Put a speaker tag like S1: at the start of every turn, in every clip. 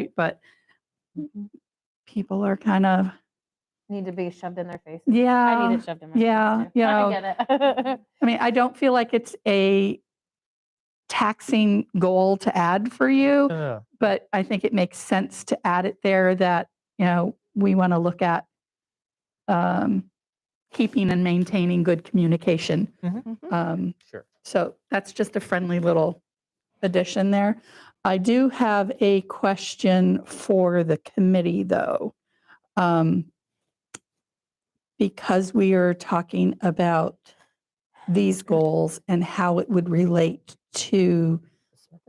S1: great, but people are kind of,
S2: Need to be shoved in their face. I need
S1: yeah.
S2: it shoved in my face.
S1: yeah,
S2: too.
S1: yeah.
S2: I get it.
S1: I mean, I don't feel like it's a taxing goal to add for you,
S3: Yeah.
S1: but I think it makes sense to add it there that, you know, we want to look at um, keeping and maintaining good communication.
S3: Mhm.
S2: Mhm.
S1: Um,
S3: Sure.
S1: So that's just a friendly little addition there. I do have a question for the committee, though. Um, Because we are talking about these goals and how it would relate to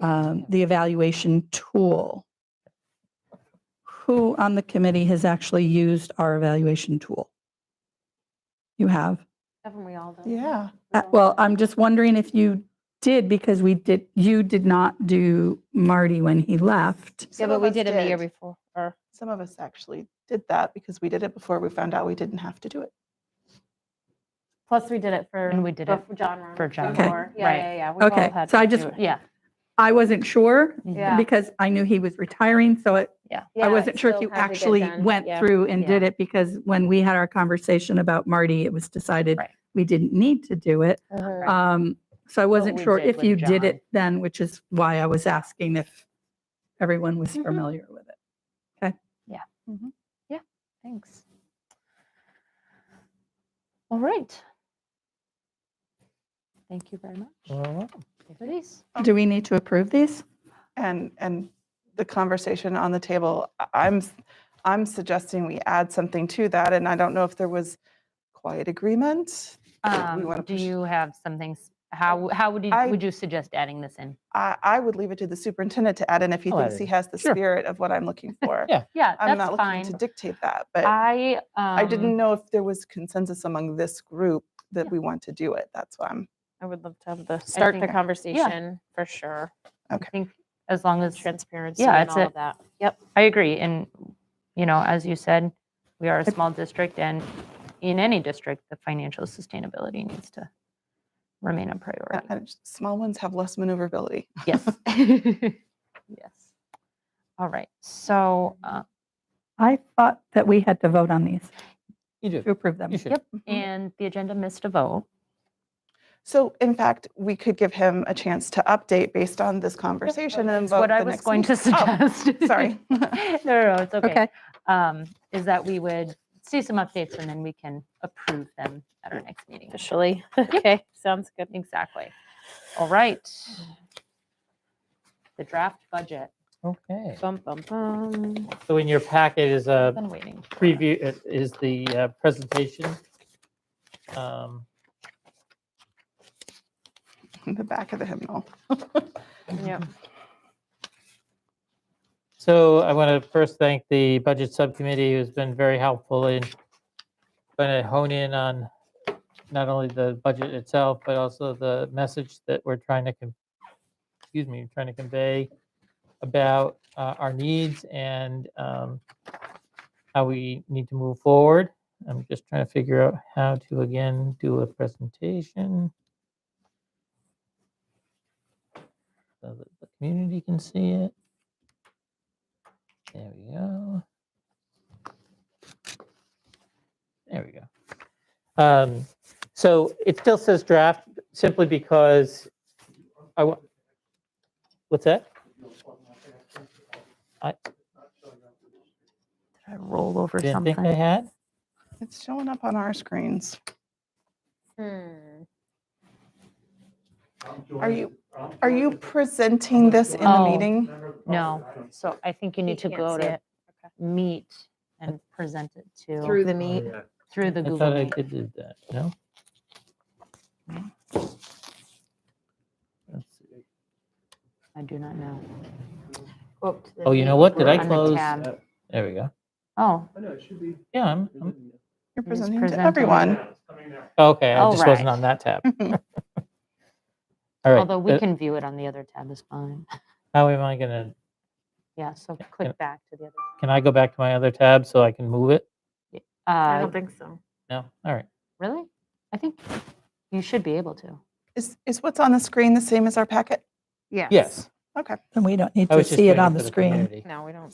S1: um, the evaluation tool. Who on the committee has actually used our evaluation tool? You have?
S2: Haven't we all done? that?
S3: Yeah.
S2: We
S1: Uh,
S2: all
S1: Well,
S2: done
S1: I'm just wondering if you did, because we did, you did not do Marty when he left.
S2: that. Yeah,
S4: Some
S2: but
S4: of
S2: we
S4: us
S2: did it the year before, or,
S4: Some of us actually did that because we did it before we found out we didn't have to do it.
S2: plus we did it for.
S5: And we did it
S2: for John Ronan
S5: for John,
S2: before. Yeah,
S5: right.
S2: yeah, yeah. we've all
S1: Okay,
S2: had
S1: so
S2: to
S1: I
S2: do
S1: just,
S2: it.
S5: Yeah.
S1: I wasn't sure
S2: Yeah.
S1: because I knew he was retiring, so it-
S2: Yeah,
S1: I
S2: it
S1: wasn't sure if you
S2: still had to get
S1: actually
S2: done.
S1: went
S2: Yeah.
S1: through and did
S5: yeah.
S1: it because when we had our conversation about Marty, it was decided
S5: Right.
S1: we didn't need to do it.
S4: Uh-huh.
S2: Mhm.
S1: Um, So I wasn't
S5: we
S1: sure
S5: did
S1: if
S5: with
S1: you did
S5: John.
S1: it then, which is why I was asking if everyone was
S2: Mm-hmm.
S5: Mhm.
S1: familiar with it.
S5: Thanks. All right. Thank you very much.
S3: Well,
S5: Everybody's.
S2: Oh.
S1: Do we need to approve these?
S4: And and the conversation on the table, I- I'm s- I'm suggesting we add something to that. And I don't know if there was quiet agreement. that we wanna
S5: Um, Do
S4: push-
S5: you have something, s- how, how would you,
S4: I-
S5: would you suggest adding this in?
S4: I, I would leave it to the superintendent to add in if he
S2: Oh,
S3: I'll add
S4: thinks
S3: it
S4: he has the
S3: Sure.
S4: spirit of what I'm looking for.
S3: Yeah.
S5: Yeah,
S4: I'm
S5: that's
S4: not looking to
S5: fine.
S4: dictate that, but
S5: I.
S2: Um
S5: um,
S4: I didn't know if there was consensus among this group that we want to do it. That's why I'm
S2: I would love to have the, start the
S5: think-
S2: conversation for sure.
S5: I think as long as,
S2: Transparency
S5: Yeah,
S2: and
S5: it's
S2: all
S5: a-
S2: of that. Yep.
S5: I agree. And, you know, as you said, we are a small district and in any district, the financial sustainability needs to remain
S4: Uh,
S5: a priority.
S4: I- I just- small ones have less maneuverability.
S5: Yes. Yes. All right. So, uh,
S1: I thought that we had to vote on these
S3: You do.
S1: to approve them.
S3: You should.
S5: Yep.
S4: Mhm.
S5: and the agenda missed a vote.
S4: So in fact, we could give him a chance to update based on this conversation and
S5: What
S4: vote
S5: I
S4: the
S5: was
S4: next
S5: going to
S4: meet- Oh,
S5: suggest.
S4: Sorry.
S5: No, no, no, it's okay.
S1: Okay.
S5: Um, Is that we would see some updates and then we can approve them at our next meeting.
S2: Officially. Okay, sounds good.
S5: Exactly. All right. The draft budget.
S3: Okay.
S2: Bum, bum, bum.
S3: So in your packet is a
S5: I've been waiting. for it.
S3: preview, uh, is the uh, presentation. Um,
S4: In the back of the hymnal.
S2: Yep.
S3: So I want to first thank the Budget Subcommittee, who's been very helpful in trying to hone in on not only the budget itself, but also the message that we're trying to, con- excuse me, trying to convey about uh, our needs and um, how we need to move forward. I'm just trying to figure out how to, again, do a presentation so that the community can see it. There we go. There we go. Um, so it still says draft simply because I want, what's that?
S5: Did I roll over
S3: Didn't think I
S5: something?
S3: had.
S4: It's showing up on our screens.
S2: Hmm.
S4: Are you, are you presenting this in the
S5: Oh.
S4: meeting?
S5: No. So I think you need to
S2: can't
S5: go
S2: see
S5: to
S2: it.
S5: meet and present it to,
S2: Through the meat.
S5: through the
S3: I
S5: Google
S3: thought I
S5: Meet.
S3: did do that, no? Let's see.
S5: I do not know.
S3: Oh, you know what? Did I
S5: on the
S3: close?
S5: tab.
S3: uh, There we go.
S5: Oh,
S3: Yeah, I'm, I'm-
S4: You're
S5: He's
S4: presenting to
S5: presenting.
S4: everyone.
S3: okay, I
S5: All
S3: just wasn't
S5: right.
S3: on that tab. All right.
S5: although we
S3: uh,
S5: can view it on the other tab is fine.
S3: How am I gonna?
S5: Yeah, so
S3: can-
S5: click back to the other.
S3: Can I go back to my other tab so I can move it?
S2: I
S5: Uh,
S2: don't think so.
S3: No? All right.
S5: Really? I think you should be able to.
S4: Is, is what's on the screen the same as our packet?
S2: Yes.
S3: Yes.
S4: Okay.
S1: And we don't need
S3: I
S1: to
S3: was just
S1: see
S3: doing
S1: it on the
S3: for
S1: screen.
S3: community.
S2: No, we don't.